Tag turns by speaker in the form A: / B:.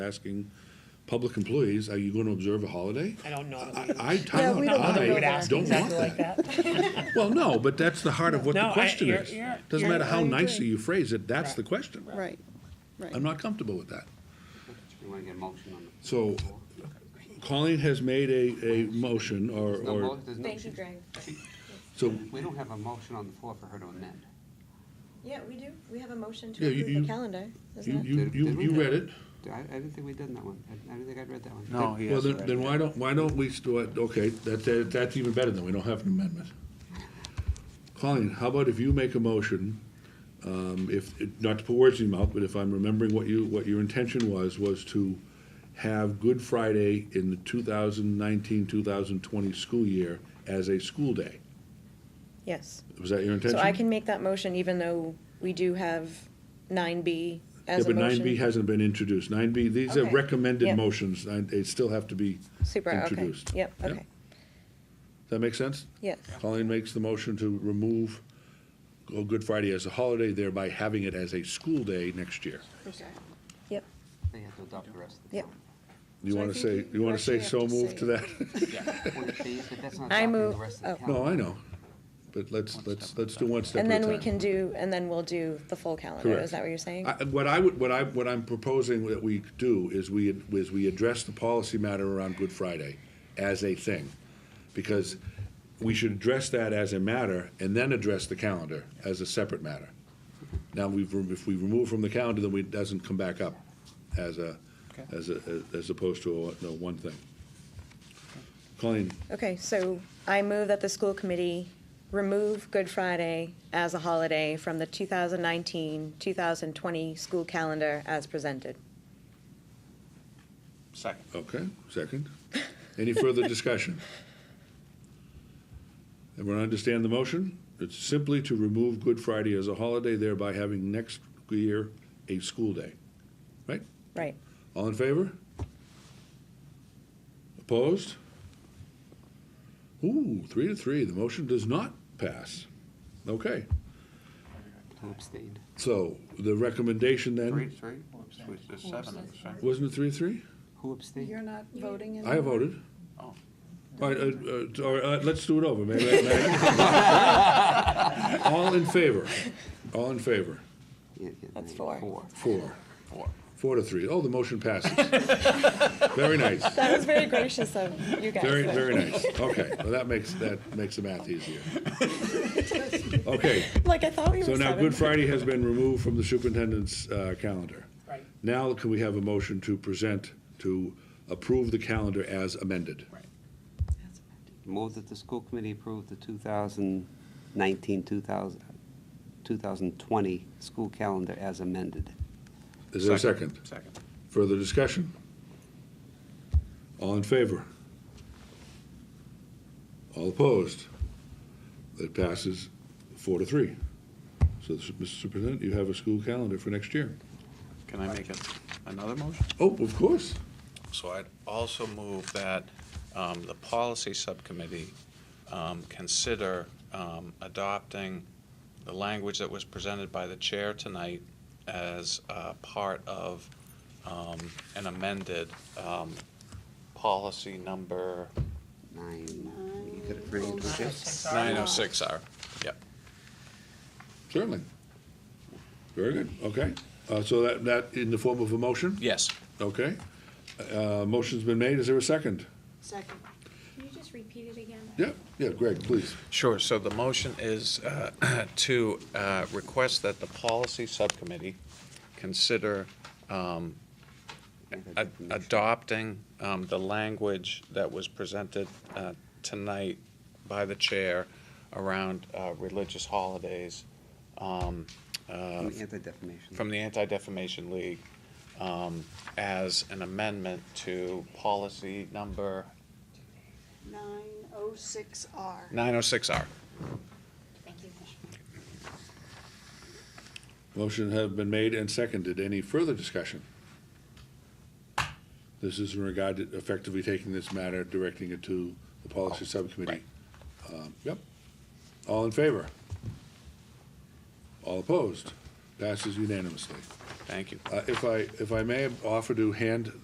A: asking public employees, are you going to observe a holiday?
B: I don't know.
A: I,
B: that we-
A: I,
C: Yeah, we don't wanna
A: I
C: go
B: would
C: there.
B: ask
A: don't want
B: exactly like
A: that.
B: that.
A: Well, no, but that's the heart of what
B: No,
A: the
B: I-
A: question
B: you're-
A: is.
B: you're-
A: Doesn't
B: you're-
A: matter how
C: I
A: nicely
C: agree.
A: you phrase it, that's the question.
C: Right, right.
A: I'm not comfortable with that.
D: You want to get a motion on the?
A: So Colleen has made a, a motion or,
D: There's no
A: or,
D: mo- there's no-
E: Thank you, Greg.
A: so,
D: We don't have a motion on the floor for her to amend.
E: Yeah, we do. We have a motion
A: Yeah,
E: to
A: you-
E: approve
A: you-
E: the calendar,
A: you,
E: isn't it?
A: you, you, you read it.
D: I, I didn't think we'd done that one. I, I didn't think I'd read that one.
F: No,
D: Did-
F: he
A: Well,
F: has
A: then, then why don't, why don't we, sto- okay, that, that, that's even better than we don't have an amendment. Colleen, how about if you make a motion, um, if, not to put words in your mouth, but if I'm remembering what you, what your intention was, was to have Good Friday in the 2019-2020 school year as a school day.
E: Yes.
A: Was that your
E: So
A: intention?
E: I can make that motion even though we do have nine B
A: Yeah,
E: as a
A: but nine B
E: motion.
A: hasn't been introduced. Nine B, these are
E: Okay.
A: recommended
E: Yep.
A: motions, and they still have to be
E: Super, okay.
A: introduced.
E: Yep,
A: Yep.
E: okay.
A: Does that make sense?
E: Yes.
A: Colleen makes the motion to remove Go- Good Friday as a holiday, thereby having it as a school day next year.
E: Yep.
D: They have to adopt the rest of the.
E: Yep.
A: You
C: So I
A: want to
C: think
A: say,
C: you-
A: you want to
C: actually
A: say
C: have
A: so
C: to
A: moved
C: say
A: to that?
D: calendar. Well, see, but that's not
E: I
D: adopting the
E: move-
D: rest of the
E: oh.
D: calendar.
A: No, I know, but let's, let's, let's do one step at a
E: And
A: time.
E: then we can do, and then we'll do the full calendar.
A: Correct.
E: Is that what you're saying?
A: I- What I would, what I, what I'm proposing that we do is we, is we address the policy matter around Good Friday as a thing. Because we should address that as a matter and then address the calendar as a separate matter. Now, we've, re- if we remove from the calendar, then we- it doesn't come back up as a, as a, as opposed to a, no, one thing. Colleen,
E: Okay, so I move that the school committee remove Good Friday as a holiday from the 2019-2020 school calendar as presented.
F: Second.
A: okay, second. Any further discussion? Everyone understand the motion? It's simply to remove Good Friday as a holiday, thereby having next year a school day. Right?
E: Right.
A: All in favor? Opposed? Ooh, three to three, the motion does not pass. Okay,
D: I abstained.
A: so the recommendation
F: Three,
A: then,
F: three? Three, There's seven of us, right?
A: wasn't it three to three?
D: Who abstained?
C: You're not voting in?
A: I voted.
F: Oh.
A: All right, uh, uh, all right, uh, let's do it over, maybe. maybe- All in favor? All in favor?
D: Yeah, yeah,
E: That's
D: yeah,
E: four.
A: Four.
F: Four.
A: Four to three. Oh, the motion passes. Very nice.
E: That was very gracious of you guys.
A: Very, very nice. Okay, well, that makes, that makes the math easier. Okay,
E: Like, I thought we were
A: so now
E: seven.
A: Good Friday has been removed from the superintendent's uh, calendar.
B: Right.
A: Now can we have a motion to present, to approve the calendar as amended?
D: Move that the school committee approve the 2019, 2000, 2020 school calendar as amended.
A: Is there a second?
F: Second.
A: Further discussion? All in favor? All opposed? That passes four to three. So, Mr. Superintendent, you have a school calendar for next year.
F: Can I make a- another motion?
A: Oh, of course.
G: So I'd also move that um, the policy subcommittee um, consider um, adopting the language that was presented by the chair tonight as uh, part of um, an amended um, policy number
D: Nine, you could have agreed with this.
G: 906R. Yep.
A: Certainly. Very good, okay. Uh, So that, that in the form of a motion?
G: Yes.
A: Okay. Uh, Motion's been made, is there a second?
C: Second.
H: Can you just repeat it again?
A: Yeah, yeah, Greg, please.
G: Sure, so the motion is uh, to uh, request that the policy subcommittee consider um, a- adopting um, the language that was presented uh, tonight by the chair around uh, religious holidays um, uh,
D: Anti-defamation.
G: from the Anti-Defamation League um, as an amendment to policy number
C: Nine oh six R.
G: 906R.
H: Thank you.
A: Motion have been made and seconded. Any further discussion? This is in regard to effectively taking this matter, directing it to the policy subcommittee. Um, Yep. All in favor? All opposed? Passes unanimously.
G: Thank you.
A: Uh, If I, if I may offer to hand